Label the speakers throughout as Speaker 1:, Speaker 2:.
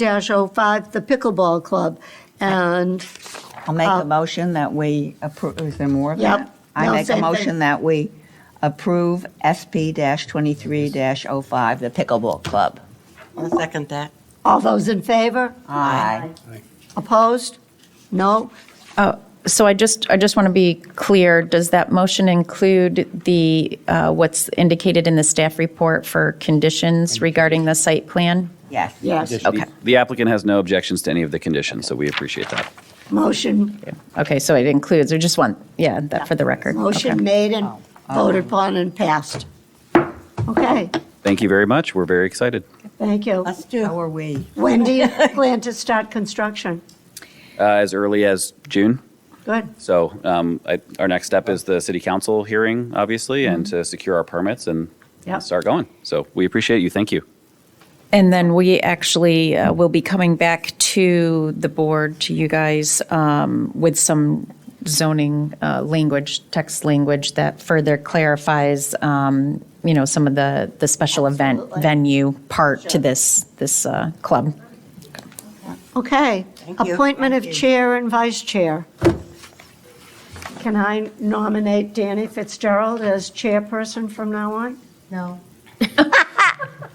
Speaker 1: 05, the Pickleball Club. And
Speaker 2: I'll make a motion that we approve, is there more than
Speaker 1: Uh, Yep.
Speaker 2: that? I
Speaker 1: No,
Speaker 2: make
Speaker 1: same
Speaker 2: a
Speaker 1: thing.
Speaker 2: motion that we approve SP-23-05, the Pickleball Club.
Speaker 3: I'll second that.
Speaker 1: all those in favor?
Speaker 2: Aye.
Speaker 1: Opposed? No?
Speaker 4: So I just, I just want to be clear, does that motion include the, uh, what's indicated in the staff report for conditions regarding the site plan?
Speaker 2: Yes.
Speaker 1: Yes.
Speaker 4: Okay.
Speaker 5: The applicant has no objections to any of the conditions, so we appreciate that.
Speaker 1: Motion,
Speaker 4: Okay, so it includes, I just want, yeah, that for the record.
Speaker 1: motion
Speaker 4: Okay.
Speaker 1: made and voted upon and passed. Okay,
Speaker 5: Thank you very much. We're very excited.
Speaker 1: thank you.
Speaker 3: Us too.
Speaker 2: How are we?
Speaker 1: When do you plan to start construction?
Speaker 5: Uh, As early as June,
Speaker 1: Good.
Speaker 5: so um, I- our next step is the city council hearing, obviously, and to secure our permits and
Speaker 1: Yep.
Speaker 5: start going. So we appreciate you. Thank you.
Speaker 4: And then we actually uh, will be coming back to the board, to you guys, um, with some zoning uh, language, text language that further clarifies, um, you know, some of the, the special event
Speaker 1: Absolutely.
Speaker 4: venue part to this, this uh, club.
Speaker 1: Okay.
Speaker 3: Thank you.
Speaker 1: Appointment of
Speaker 3: Thank you.
Speaker 1: chair and vice chair. Can I nominate Danny Fitzgerald as chairperson from now on?
Speaker 6: No.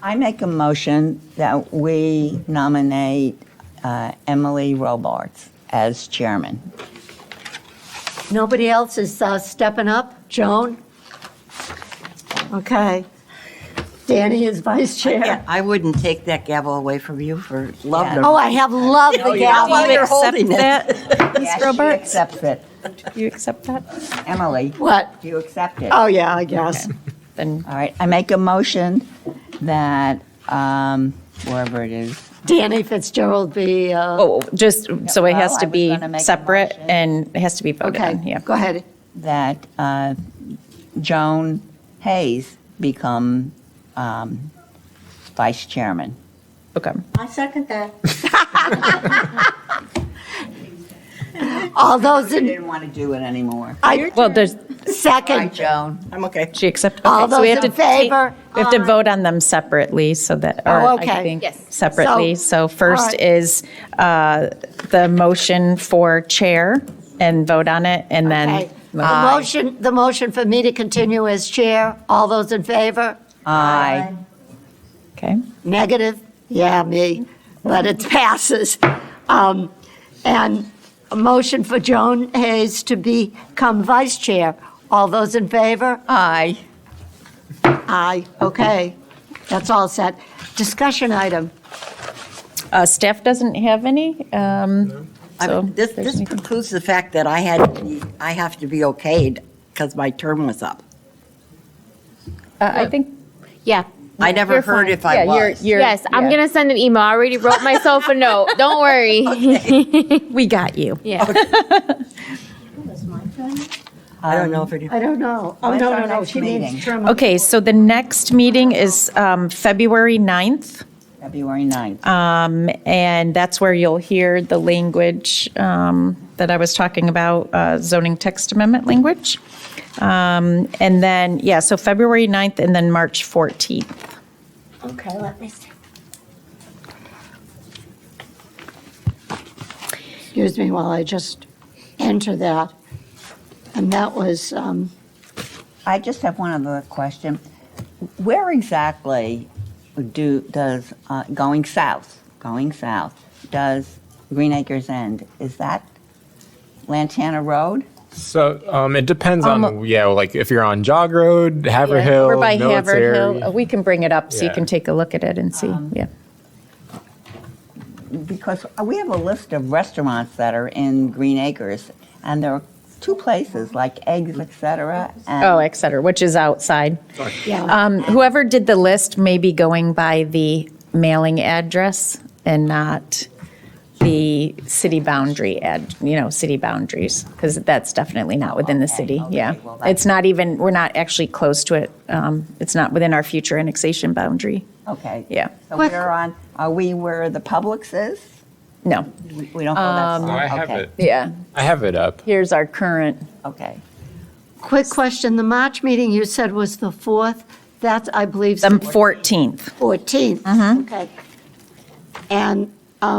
Speaker 2: I make a motion that we nominate uh, Emily Robarts as chairman.
Speaker 1: Nobody else is uh, stepping up? Joan? Okay. Danny is vice
Speaker 3: Yeah,
Speaker 1: chair.
Speaker 3: I wouldn't take that gavel away from you for
Speaker 2: Yeah.
Speaker 3: love.
Speaker 1: Oh, I have loved the
Speaker 3: While
Speaker 1: gavel.
Speaker 3: you're holding it.
Speaker 2: Yes,
Speaker 4: Robarts?
Speaker 2: She accepts it.
Speaker 4: You accept that?
Speaker 2: Emily,
Speaker 1: What?
Speaker 2: do you accept it?
Speaker 1: Oh, yeah, I guess.
Speaker 4: Then
Speaker 2: All right, I make a motion that, um, wherever it is,
Speaker 1: Danny Fitzgerald be, uh,
Speaker 4: Oh, just, so it has
Speaker 2: well, I
Speaker 4: to
Speaker 2: was
Speaker 4: be
Speaker 2: gonna make a
Speaker 4: separate
Speaker 2: motion.
Speaker 4: and it has to be voted
Speaker 1: okay,
Speaker 4: on, yeah.
Speaker 1: go ahead.
Speaker 2: that uh, Joan Hayes become um, vice chairman.
Speaker 4: Okay.
Speaker 6: I second that.
Speaker 1: All those
Speaker 2: I
Speaker 1: in,
Speaker 2: didn't want to do it anymore.
Speaker 1: I,
Speaker 4: Well, there's,
Speaker 2: Hi,
Speaker 1: second,
Speaker 2: Joan.
Speaker 3: I'm okay.
Speaker 4: she accepted.
Speaker 1: All
Speaker 4: okay, so we
Speaker 1: those
Speaker 4: have
Speaker 1: in
Speaker 4: to take-
Speaker 1: favor?
Speaker 4: We have to vote on them separately so that,
Speaker 1: Oh,
Speaker 4: or
Speaker 1: okay.
Speaker 4: I think,
Speaker 6: Yes.
Speaker 4: separately.
Speaker 1: So-
Speaker 4: So first
Speaker 1: all right.
Speaker 4: is uh, the motion for chair and vote on it and
Speaker 1: okay.
Speaker 4: then. uh,
Speaker 1: The motion, the motion for me to continue as chair, all those in favor?
Speaker 2: Aye.
Speaker 4: Okay.
Speaker 1: Negative? Yeah, me, but it passes. Um, And a motion for Joan Hayes to become vice chair. All those in favor?
Speaker 2: Aye.
Speaker 1: Aye, okay, that's all set. Discussion item.
Speaker 4: Uh, Staff doesn't have any, um,
Speaker 3: I
Speaker 4: so.
Speaker 3: mean, This,
Speaker 4: there's
Speaker 3: this
Speaker 4: any-
Speaker 3: precludes the fact that I had, to be- I have to be okayed because my term was up.
Speaker 4: uh, I think.
Speaker 6: Yeah.
Speaker 3: I never
Speaker 4: you're
Speaker 3: heard
Speaker 4: fine.
Speaker 3: if I
Speaker 4: Yeah, you're-
Speaker 3: was.
Speaker 4: you're-
Speaker 6: Yes,
Speaker 4: yeah.
Speaker 6: I'm gonna send an email. I already wrote myself a note. Don't worry.
Speaker 4: We got you.
Speaker 6: Yeah.
Speaker 3: I don't
Speaker 4: Um,
Speaker 3: know if it.
Speaker 1: I don't know. Oh,
Speaker 2: When's
Speaker 1: no,
Speaker 2: our
Speaker 1: no, no,
Speaker 2: next
Speaker 1: she means
Speaker 2: meeting?
Speaker 1: term.
Speaker 4: Okay, so the next meeting is um, February 9th.
Speaker 2: February 9th.
Speaker 1: Uh,
Speaker 4: And that's where you'll hear the language um, that I was talking about, uh, zoning text amendment language. Um, And then, yeah, so February 9th and then March 14th.
Speaker 6: Okay, let me see.
Speaker 1: Excuse me while I just enter that. And that was, um,
Speaker 2: I just have one other question. Where exactly do, does, uh, going south, going south, does Green Acres end? Is that Lantana Road?
Speaker 7: So um, it depends on yeah, like if you're on Jog Road, Haverhill,
Speaker 4: We're by
Speaker 7: military.
Speaker 4: Haverhill. Uh, We can bring it up so you
Speaker 7: Yeah.
Speaker 4: can take a look at it and see, yeah.
Speaker 2: Because we have a list of restaurants that are in Green Acres, and there are two places, like Eggs, et cetera, and
Speaker 4: Oh, et cetera, which is outside.
Speaker 1: yeah,
Speaker 4: Um, Whoever did the list may be going by the mailing address and not the city boundary, ad- you know, city boundaries, because that's definitely not within the
Speaker 2: Okay,
Speaker 4: city,
Speaker 2: okay,
Speaker 4: yeah.
Speaker 2: well, that's-
Speaker 4: It's not even, we're not actually close to it. Um, It's not within our future annexation boundary,
Speaker 2: Okay.
Speaker 4: yeah.
Speaker 2: So
Speaker 1: Quick.
Speaker 2: we're on, are we where the Publix is?
Speaker 4: No,
Speaker 2: We we don't go that far?
Speaker 7: No, I have
Speaker 2: Okay,
Speaker 7: it.
Speaker 4: yeah,
Speaker 7: I have it up.
Speaker 4: here's our current,
Speaker 2: Okay.
Speaker 1: quick question, the March meeting you said was the 4th, that's, I believe.
Speaker 4: the 14th.
Speaker 1: 14th. Okay. And um,